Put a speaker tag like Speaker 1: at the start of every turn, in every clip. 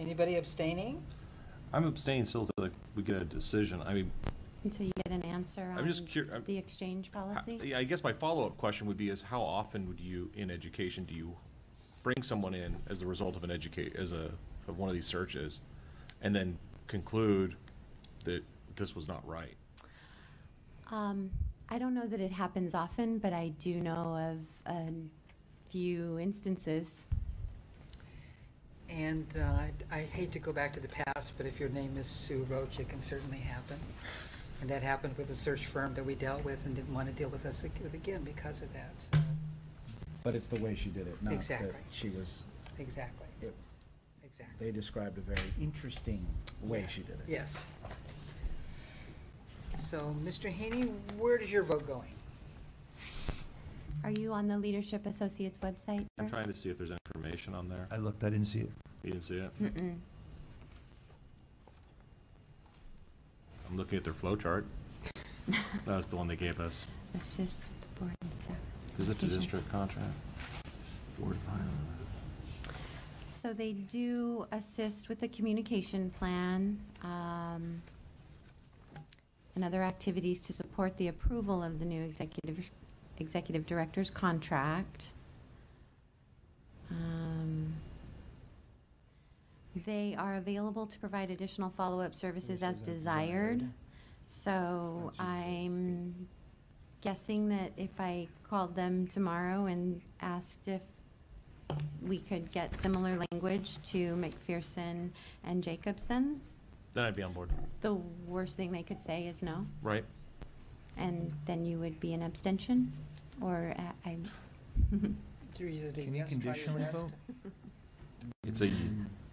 Speaker 1: Anybody abstaining?
Speaker 2: I'm abstaining still till we get a decision. I mean,
Speaker 3: Until you get an answer
Speaker 2: I'm
Speaker 3: on
Speaker 2: just cur- I'm-
Speaker 3: the exchange
Speaker 2: how-
Speaker 3: policy?
Speaker 2: yeah, I guess my follow-up question would be is how often would you, in education, do you bring someone in as a result of an educate, as a, of one of these searches? And then conclude that this was not right?
Speaker 3: Um, I don't know that it happens often, but I do know of a few instances.
Speaker 1: And uh, I hate to go back to the past, but if your name is Sue Roach, it can certainly happen. And that happened with a search firm that we dealt with and didn't want to deal with us ag- with again because of that, so,
Speaker 4: But it's the way she did it, not that
Speaker 1: Exactly.
Speaker 4: she was,
Speaker 1: exactly,
Speaker 4: it-
Speaker 1: exactly.
Speaker 4: they described a very interesting way she did it.
Speaker 1: Yes. So, Mr. Haney, where is your vote going?
Speaker 3: Are you on the Leadership Associates website?
Speaker 2: I'm
Speaker 3: Bert?
Speaker 2: trying to see if there's information on there.
Speaker 5: I looked, I didn't see it.
Speaker 2: You didn't see it?
Speaker 3: Mm-mm.
Speaker 2: I'm looking at their flow chart. That was the one they gave us.
Speaker 3: Assist with the board and staff.
Speaker 2: Is it the
Speaker 3: Education.
Speaker 2: district contract? Board of Finance.
Speaker 3: So they do assist with the communication plan um, and other activities to support the approval of the new executive, executive director's contract. Um, They are available to provide additional follow-up services as
Speaker 4: Services as desired.
Speaker 3: desired. So
Speaker 4: That's usually
Speaker 3: I'm guessing that if I called them tomorrow and asked if we could get similar language to McPherson and Jacobson,
Speaker 2: Then I'd be on board,
Speaker 3: the worst thing they could say is no,
Speaker 2: right?
Speaker 3: and then you would be an abstention, or a- I,
Speaker 5: Can you conditionally vote?
Speaker 2: It's a,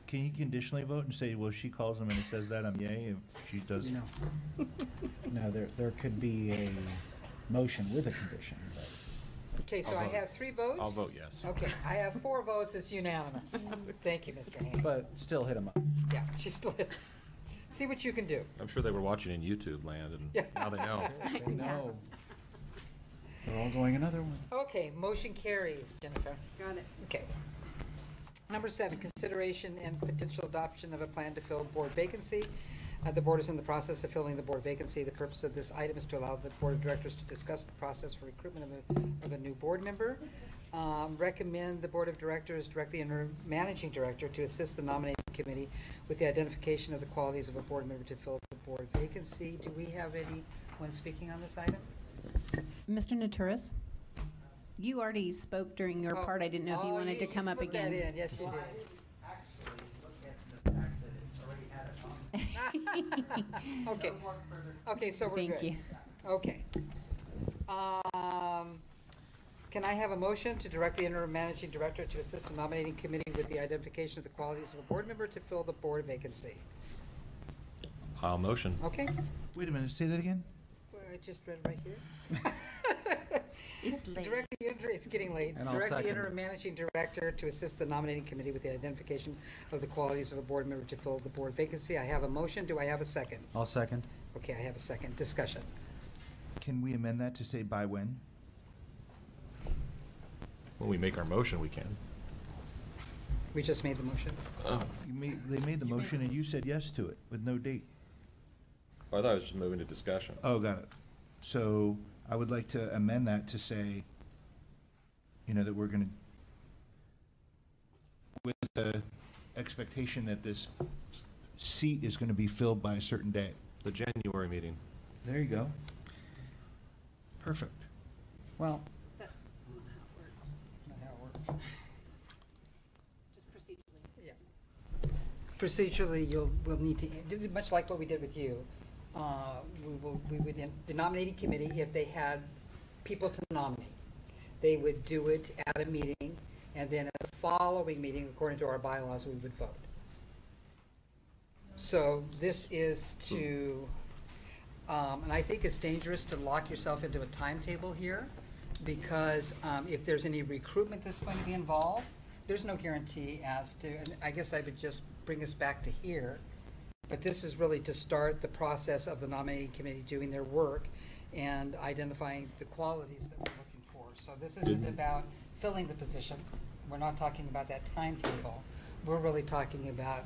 Speaker 5: Can you conditionally vote and say, well, she calls him and it says that, I'm yay, if she does?
Speaker 1: No.
Speaker 4: Now, there, there could be a motion with a condition, but.
Speaker 1: Okay, so
Speaker 2: I'll
Speaker 1: I
Speaker 2: vote-
Speaker 1: have three votes?
Speaker 2: I'll vote yes.
Speaker 1: Okay, I have four votes, it's unanimous. Thank you, Mr. Haney.
Speaker 4: But still hit them up.
Speaker 1: Yeah, she's still, see what you can do.
Speaker 2: I'm sure they were watching in YouTube land and now they know.
Speaker 4: They know. They're all going another one.
Speaker 1: Okay, motion carries, Jennifer. Got it. Okay. Number seven, consideration and potential adoption of a plan to fill board vacancy. Uh, The board is in the process of filling the board vacancy. The purpose of this item is to allow the board of directors to discuss the process for recruitment of a, of a new board member. Um, Recommend the board of directors direct the interim managing director to assist the nominating committee with the identification of the qualities of a board member to fill the board vacancy. Do we have anyone speaking on this item?
Speaker 6: Mr. Naturis, you already spoke during your
Speaker 1: Oh,
Speaker 6: part. I didn't know if you
Speaker 1: oh,
Speaker 6: wanted to
Speaker 1: you
Speaker 6: come up
Speaker 1: slipped that
Speaker 6: again.
Speaker 1: in. Yes, you
Speaker 7: Well,
Speaker 1: did.
Speaker 7: I Actually, look at the fact that it's already had a comment.
Speaker 1: Okay,
Speaker 7: Don't work further
Speaker 1: okay, so we're good.
Speaker 6: Thank you.
Speaker 1: Okay. Um, Can I have a motion to direct the interim managing director to assist the nominating committee with the identification of the qualities of a board member to fill the board vacancy?
Speaker 2: I'll motion.
Speaker 1: Okay,
Speaker 5: Wait a minute, say that again?
Speaker 1: Well, I just read right here.
Speaker 3: it's late.
Speaker 1: Direct the, inter- it's getting late.
Speaker 4: And I'll
Speaker 1: Direct the
Speaker 4: second.
Speaker 1: interim managing director to assist the nominating committee with the identification of the qualities of a board member to fill the board vacancy. I have a motion. Do I have a second?
Speaker 4: I'll second.
Speaker 1: Okay, I have a second. Discussion.
Speaker 5: Can we amend that to say by when?
Speaker 2: When we make our motion, we can.
Speaker 1: We just made the motion.
Speaker 5: You made, they made the motion and you said yes to it with no date.
Speaker 2: I thought I was just moving to discussion.
Speaker 5: Oh, got it. So I would like to amend that to say, you know, that we're gonna, with the expectation that this seat is gonna be filled by a certain date.
Speaker 2: The January meeting.
Speaker 5: There you go. Perfect.
Speaker 4: Well,
Speaker 1: That's not how it works. Just procedurally. Yeah. Procedurally, you'll, we'll need to, this is much like what we did with you, uh, we will, we would, in- the nominating committee, if they had people to nominate, they would do it at a meeting, and then at the following meeting, according to our bylaws, we would vote. So this is to, um, and I think it's dangerous to lock yourself into a timetable here, because um, if there's any recruitment that's going to be involved, there's no guarantee as to, and I guess I would just bring us back to here, but this is really to start the process of the nominating committee doing their work and identifying the qualities that we're looking for. So this isn't about filling the position. We're not talking about that timetable. We're really talking about